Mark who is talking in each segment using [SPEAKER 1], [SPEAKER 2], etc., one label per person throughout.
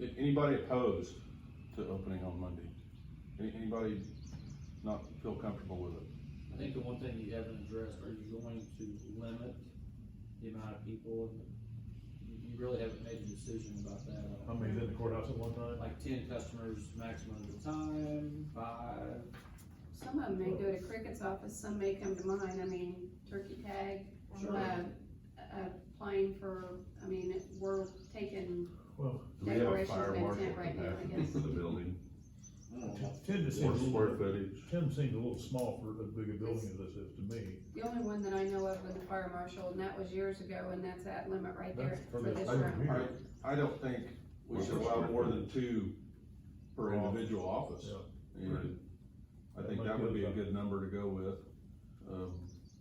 [SPEAKER 1] A- Anybody opposed to opening on Monday? Any- Anybody not feel comfortable with it?
[SPEAKER 2] I think the one thing you haven't addressed, are you going to limit the amount of people? You you really haven't made a decision about that.
[SPEAKER 3] How many's in the courthouse at one time?
[SPEAKER 2] Like ten customers maximum at a time, five,
[SPEAKER 4] Some of them may go to Cricket's office, some may come to mine, I mean, turkey tag,
[SPEAKER 2] Sure.
[SPEAKER 4] uh, applying for, I mean, we're taking
[SPEAKER 3] Well,
[SPEAKER 1] Do we have a
[SPEAKER 4] Decorations
[SPEAKER 1] fire
[SPEAKER 4] been
[SPEAKER 1] marshal
[SPEAKER 4] sent right now, I
[SPEAKER 1] capacity
[SPEAKER 4] guess.
[SPEAKER 1] for the building?
[SPEAKER 2] I don't
[SPEAKER 3] t-
[SPEAKER 2] know.
[SPEAKER 3] ten just
[SPEAKER 1] Or
[SPEAKER 3] seems, a
[SPEAKER 1] square
[SPEAKER 3] little-
[SPEAKER 1] footage?
[SPEAKER 3] ten seems a little small for as big a building as this is to me.
[SPEAKER 4] the only one that I know of was the fire marshal, and that was years ago, and that's that limit right there
[SPEAKER 3] That's
[SPEAKER 4] for
[SPEAKER 3] for
[SPEAKER 4] this
[SPEAKER 3] this
[SPEAKER 4] room.
[SPEAKER 3] room.
[SPEAKER 1] I, I don't think we should allow more than two per individual office. And I think that would be a good number to go with. Um,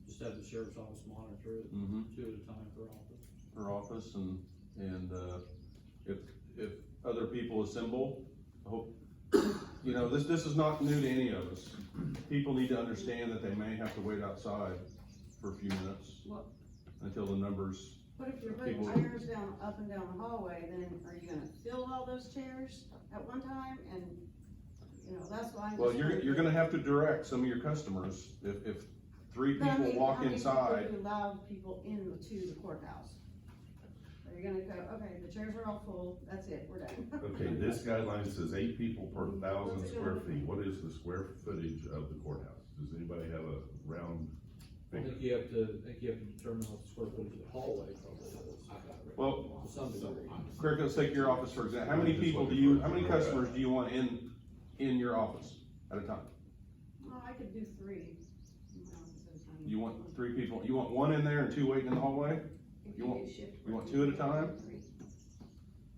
[SPEAKER 2] Just have the sheriff's office monitor it,
[SPEAKER 1] mhm.
[SPEAKER 2] two at a time per office.
[SPEAKER 1] her office and, and, uh, if, if other people assemble, I hope, you know, this, this is not new to any of us. People need to understand that they may have to wait outside for a few minutes
[SPEAKER 4] Well-
[SPEAKER 1] until the numbers,
[SPEAKER 5] But if you're
[SPEAKER 1] People-
[SPEAKER 5] putting chairs down, up and down the hallway, then are you gonna fill all those chairs at one time and, you know, that's why. I'm
[SPEAKER 1] well,
[SPEAKER 5] just
[SPEAKER 1] you're,
[SPEAKER 5] trying
[SPEAKER 1] you're
[SPEAKER 5] to-
[SPEAKER 1] gonna have to direct some of your customers. If, if three
[SPEAKER 5] But I
[SPEAKER 1] people
[SPEAKER 5] mean,
[SPEAKER 1] walk
[SPEAKER 5] how many people
[SPEAKER 1] inside,
[SPEAKER 5] do you Allow people in to the courthouse. Are you gonna go, okay, the chairs are all full, that's it, we're done.
[SPEAKER 6] Okay, this guideline says eight people per thousand
[SPEAKER 5] Let's go.
[SPEAKER 6] square feet, what is the square footage of the courthouse? Does anybody have a round
[SPEAKER 2] I think
[SPEAKER 6] figure?
[SPEAKER 2] you have to, I think you have to determine what the square footage of the hallway probably is.
[SPEAKER 1] well,
[SPEAKER 2] To some degree.
[SPEAKER 1] Craig, let's take your office for example. How many people do you, how many customers do you want in, in your office at a time?
[SPEAKER 5] Well, I could do three. No, it's so tiny.
[SPEAKER 1] You want three people, you want one in there and two waiting in the hallway?
[SPEAKER 4] If
[SPEAKER 1] You want-
[SPEAKER 4] do shift
[SPEAKER 1] you want
[SPEAKER 4] work,
[SPEAKER 1] two at a
[SPEAKER 4] you
[SPEAKER 1] time?
[SPEAKER 4] three.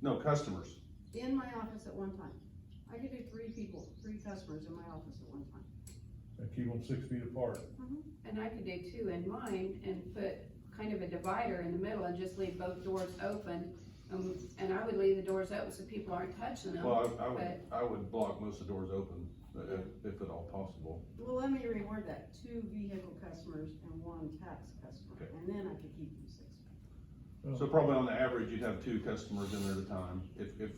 [SPEAKER 1] No, customers.
[SPEAKER 5] In my office at one time. I could do three people, three customers in my office at one time.
[SPEAKER 3] And keep them six feet apart.
[SPEAKER 4] And I could do two in mine and put kind of a divider in the middle and just leave both doors open. Um, and I would leave the doors open so people aren't touching them.
[SPEAKER 1] Well, I, I would,
[SPEAKER 4] but-
[SPEAKER 1] I would block most of the doors open, uh, if, if at all possible.
[SPEAKER 5] Well, let me reword that, two vehicle customers and one tax customer,
[SPEAKER 1] Okay.
[SPEAKER 5] and then I could keep them six.
[SPEAKER 1] So probably on the average, you'd have two customers in there at a time. If, if,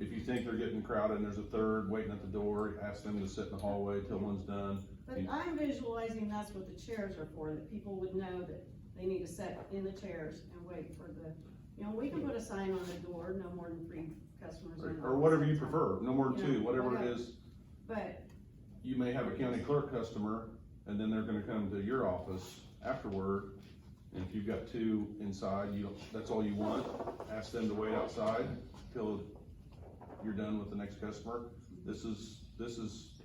[SPEAKER 1] if you think they're getting crowded and there's a third waiting at the door, ask them to sit in the hallway till one's done.
[SPEAKER 5] But
[SPEAKER 1] And-
[SPEAKER 5] I'm visualizing that's what the chairs are for, that people would know that they need to sit in the chairs and wait for the, you know, we can put a sign on the door, no more than three customers.
[SPEAKER 1] Or
[SPEAKER 5] in
[SPEAKER 1] or whatever you
[SPEAKER 5] at a time.
[SPEAKER 1] prefer, no more than two,
[SPEAKER 5] Yeah,
[SPEAKER 1] whatever it
[SPEAKER 5] whatever.
[SPEAKER 1] is.
[SPEAKER 5] But,
[SPEAKER 1] You may have a county clerk customer, and then they're gonna come to your office afterward. And if you've got two inside, you, don't- that's all you want, ask them to wait outside till you're done with the next customer. This is, this is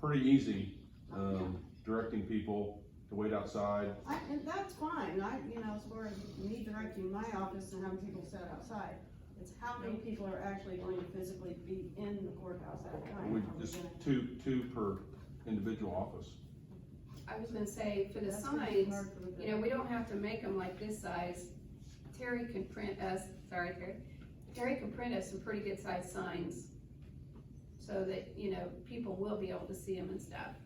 [SPEAKER 1] pretty easy, um, directing people to wait outside.
[SPEAKER 5] I, and that's fine, I, you know, as far as me directing my office and having people sit outside, it's how many people are actually going to physically be in the courthouse at a time.
[SPEAKER 1] We
[SPEAKER 5] Are we
[SPEAKER 1] just,
[SPEAKER 5] gonna-
[SPEAKER 1] two, two per individual office.
[SPEAKER 4] I was gonna say, for the
[SPEAKER 5] That's gonna be
[SPEAKER 4] signs,
[SPEAKER 5] hard for the-
[SPEAKER 4] you know, we don't have to make them like this size. Terry can print us, sorry Terry, Terry can print us some pretty good sized signs. So that, you know, people will be able to see them and stuff.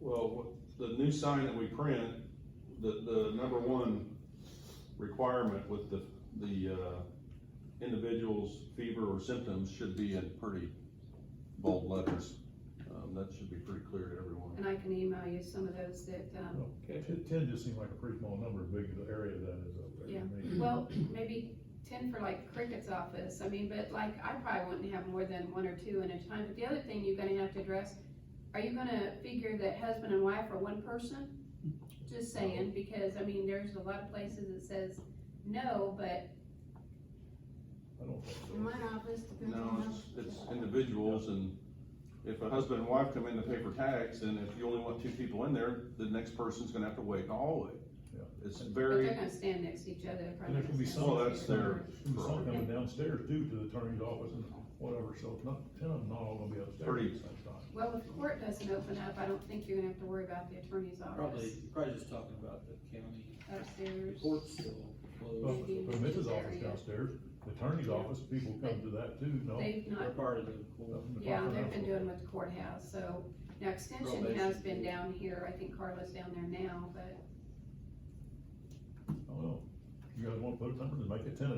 [SPEAKER 1] Well, wh- the new sign that we print, the, the number one requirement with the, the, uh, individual's fever or symptoms should be in pretty bold letters. Um, that should be pretty clear to everyone.
[SPEAKER 4] And I can email you some of those that, um,
[SPEAKER 3] Ten, ten just seemed like a pretty small number, as big as the area that is over there.
[SPEAKER 4] Yeah.
[SPEAKER 3] to me.
[SPEAKER 4] well, maybe ten for like Cricket's office. I mean, but like, I probably wouldn't have more than one or two at a time. But the other thing you're gonna have to address, are you gonna figure that husband and wife are one person? Just saying, because I mean, there's a lot of places that says no, but
[SPEAKER 3] I don't think
[SPEAKER 5] In
[SPEAKER 3] so.
[SPEAKER 5] my office, depends
[SPEAKER 1] No,
[SPEAKER 5] on
[SPEAKER 1] it's,
[SPEAKER 5] how.
[SPEAKER 1] it's individuals and if a husband and wife come in to pay for tax and if you only want two people in there, the next person's gonna have to wait in the hallway.
[SPEAKER 3] Yeah.
[SPEAKER 1] It's
[SPEAKER 4] but
[SPEAKER 1] very.
[SPEAKER 4] they're gonna stand nenext to each other. they're probably
[SPEAKER 3] And there could be
[SPEAKER 4] gonna
[SPEAKER 3] some.
[SPEAKER 4] stand
[SPEAKER 1] Well, that's
[SPEAKER 4] next to each other.
[SPEAKER 1] their-
[SPEAKER 3] There's some coming downstairs due to the attorney's office and whatever, so it's not, ten of them not all gonna be upstairs.
[SPEAKER 1] Pretty-
[SPEAKER 3] at the same time.
[SPEAKER 4] Well, if court doesn't open up, I don't think you're gonna have to worry about the attorney's
[SPEAKER 2] Probably,
[SPEAKER 4] office
[SPEAKER 2] probably just talking about the county, the
[SPEAKER 4] upstairs.
[SPEAKER 2] court's still
[SPEAKER 3] Well,
[SPEAKER 2] closed.
[SPEAKER 4] Maybe
[SPEAKER 3] But
[SPEAKER 4] in this
[SPEAKER 3] Mrs. office
[SPEAKER 4] area.
[SPEAKER 3] downstairs, the attorney's office, people come to that too, no?
[SPEAKER 4] They've not
[SPEAKER 2] They're part of the court.
[SPEAKER 3] Nothing to
[SPEAKER 4] Yeah,
[SPEAKER 3] talk
[SPEAKER 4] they've
[SPEAKER 3] about.
[SPEAKER 4] been doing with the courthouse, so, now extension has been down here, I think Carla's down there now, but
[SPEAKER 3] I don't know. You guys wanna put a number, then make it ten